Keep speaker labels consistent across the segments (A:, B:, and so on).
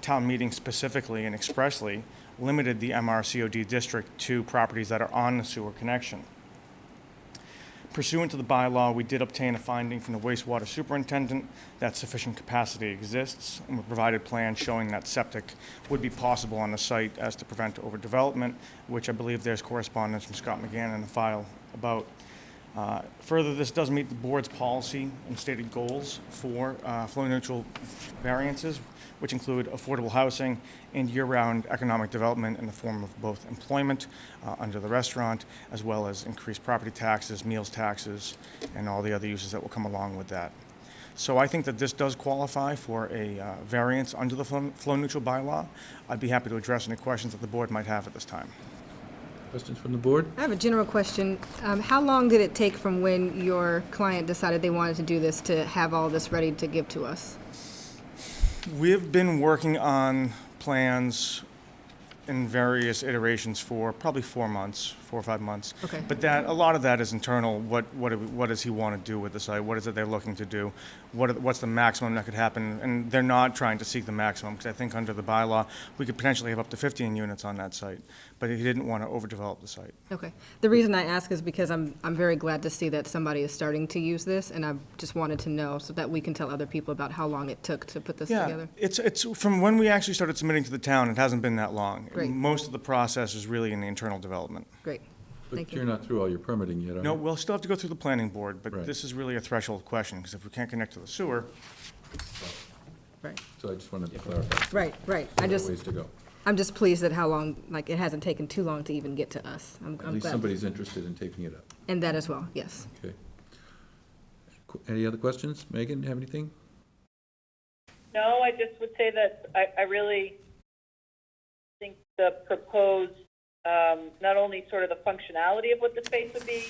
A: town meeting specifically and expressly limited the MRCOD district to properties that are on the sewer connection. Pursuant to the bylaw, we did obtain a finding from the wastewater superintendent that sufficient capacity exists, and we provided plans showing that septic would be possible on the site as to prevent overdevelopment, which I believe there's correspondence from Scott McGann in the file about. Uh, Further, this does meet the board's policy and stated goals for uh, flow-neutral variances, which include affordable housing and year-round economic development in the form of both employment uh, under the restaurant, as well as increased property taxes, meals taxes, and all the other uses that will come along with that. So I think that this does qualify for a uh, variance under the flow- flow-neutral bylaw. I'd be happy to address any questions that the board might have at this time.
B: Questions from the board?
C: I have a general question. Um, How long did it take from when your client decided they wanted to do this to have all this ready to give to us?
A: We've been working on plans in various iterations for probably four months, four or five months.
C: Okay.
A: But that, a lot of that is internal. What, what, do we- what does he want to do with the site? What is it they're looking to do? What, are- what's the maximum that could happen? And they're not trying to seek the maximum, because I think under the bylaw, we could potentially have up to 15 units on that site. But he didn't want to overdevelop the site.
C: Okay. The reason I ask is because I'm, I'm very glad to see that somebody is starting to use this, and I just wanted to know so that we can tell other people about how long it took to put this together.
A: Yeah, it's, it's, from when we actually started submitting to the town, it hasn't been that long.
C: Great.
A: Most of the process is really in the internal development.
C: Great. Thank
B: But you're
C: you.
B: not through all your permitting yet, are you?
A: No, we'll still have to go through the planning board, but
B: Right.
A: this is really a threshold question, because if we can't connect to the sewer,
C: Right,
B: So I just wanted to clarify.
C: right, right. I
B: There are
C: just,
B: Ways to go.
C: I'm just pleased at how long, like, it hasn't taken too long to even get to us. I'm
B: At
C: I'm
B: least
C: glad.
B: somebody's interested in taking it up,
C: And that as well, yes.
B: okay? Qu- Any other questions? Megan, have anything?
D: No, I just would say that I, I really think the proposed, um, not only sort of the functionality of what the space would be,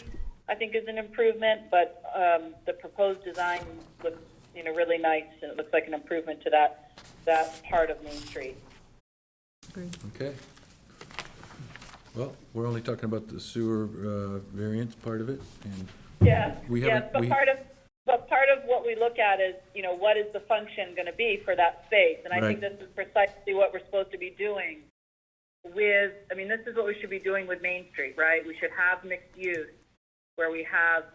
D: I think is an improvement, but, um, the proposed design looks, you know, really nice, and it looks like an improvement to that, that part of Main Street.
B: Okay. Well, we're only talking about the sewer uh, variance part of it, and
D: Yeah,
B: We
D: yeah,
B: haven't-
D: but
B: we-
D: part of, but part of what we look at is, you know, what is the function gonna be for that space? And I think
B: Right.
D: this is precisely what we're supposed to be doing with, I mean, this is what we should be doing with Main Street, right? We should have mixed use, where we have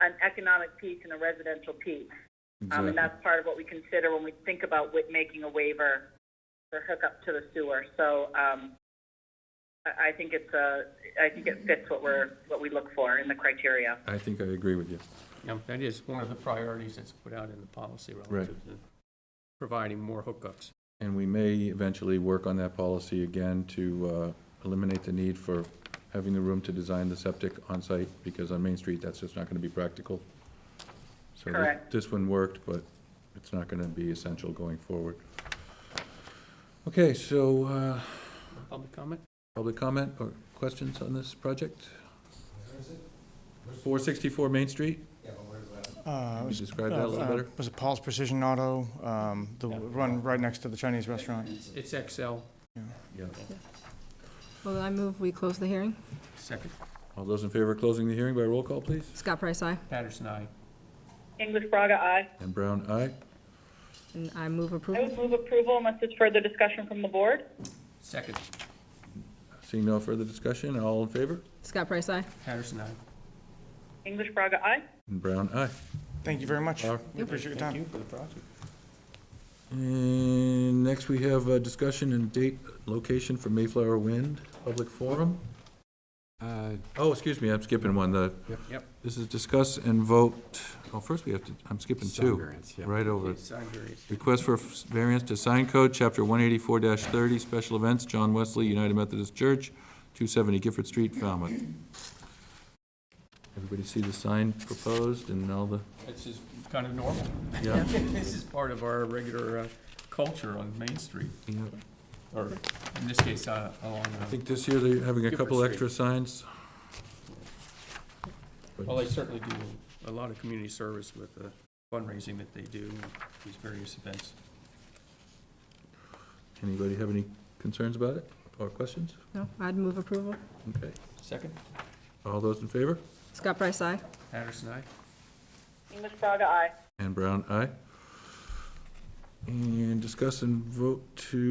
D: an economic piece and a residential piece. Um,
B: Exactly.
D: and that's part of what we consider when we think about wa- making a waiver for hookup to the sewer. So, um, I, I think it's a, I think it fits what we're, what we look for in the criteria.
B: I think I agree with you.
E: Yeah, that is one of the priorities that's put out in the policy relative to providing more hookups.
B: And we may eventually work on that policy again to uh, eliminate the need for having the room to design the septic on-site, because on Main Street, that's just not going to be practical. So thi-
D: Correct.
B: this one worked, but it's not going to be essential going forward. Okay, so uh,
E: Public comment?
B: public comment or questions on this project? 464 Main Street?
A: uh,
B: Can you
A: was-
B: describe that a little
A: uh,
B: better?
A: Was it Paul's Precision Auto, um, the one right next to the Chinese restaurant?
E: It's XL,
B: Yeah.
C: Well, then I move we close the hearing.
E: second.
B: All those in favor of closing the hearing by roll call, please?
C: Scott Price, aye.
E: Patterson, aye.
D: English Braga, aye.
B: And Brown, aye.
C: And I move
D: I
C: approval.
D: would move approval unless there's further discussion from the board.
E: Second.
B: Seeing no further discussion, all in favor?
C: Scott Price, aye.
E: Patterson, aye.
D: English Braga, aye.
B: And Brown, aye.
A: Thank you very much.
B: Laura?
A: We appreciate your time.
E: Thank you for the project.
B: And next, we have a discussion and date, location for Mayflower Wind Public Forum.
F: Uh,
B: Oh, excuse me, I'm skipping one. The,
E: Yep.
B: this is discuss and vote, oh, first we have to, I'm skipping
F: Sign
B: two.
F: variance, yeah.
B: Right over.
E: It's on various.
B: Request for variance to sign code, chapter one eighty-four thirty, special events, John Wesley, United Methodist Church, two seventy Gifford Street, Falmouth. Everybody see the sign proposed and all the,
E: This is kind of normal.
B: yeah,
E: This is part of our regular uh, culture on Main Street,
B: yeah.
E: or in this case, uh, along, uh,
B: I think this year they're having a
E: Gifford
B: couple
E: Street.
B: extra signs.
E: well, they certainly do a lot of community service with the fundraising that they do, and these various events.
B: Anybody have any concerns about it or questions?
C: No, I'd move approval.
B: Okay.
E: Second.
B: All those in favor?
C: Scott Price, aye.
E: Patterson, aye.
D: English Braga, aye.
B: And Brown, aye. And discuss and vote to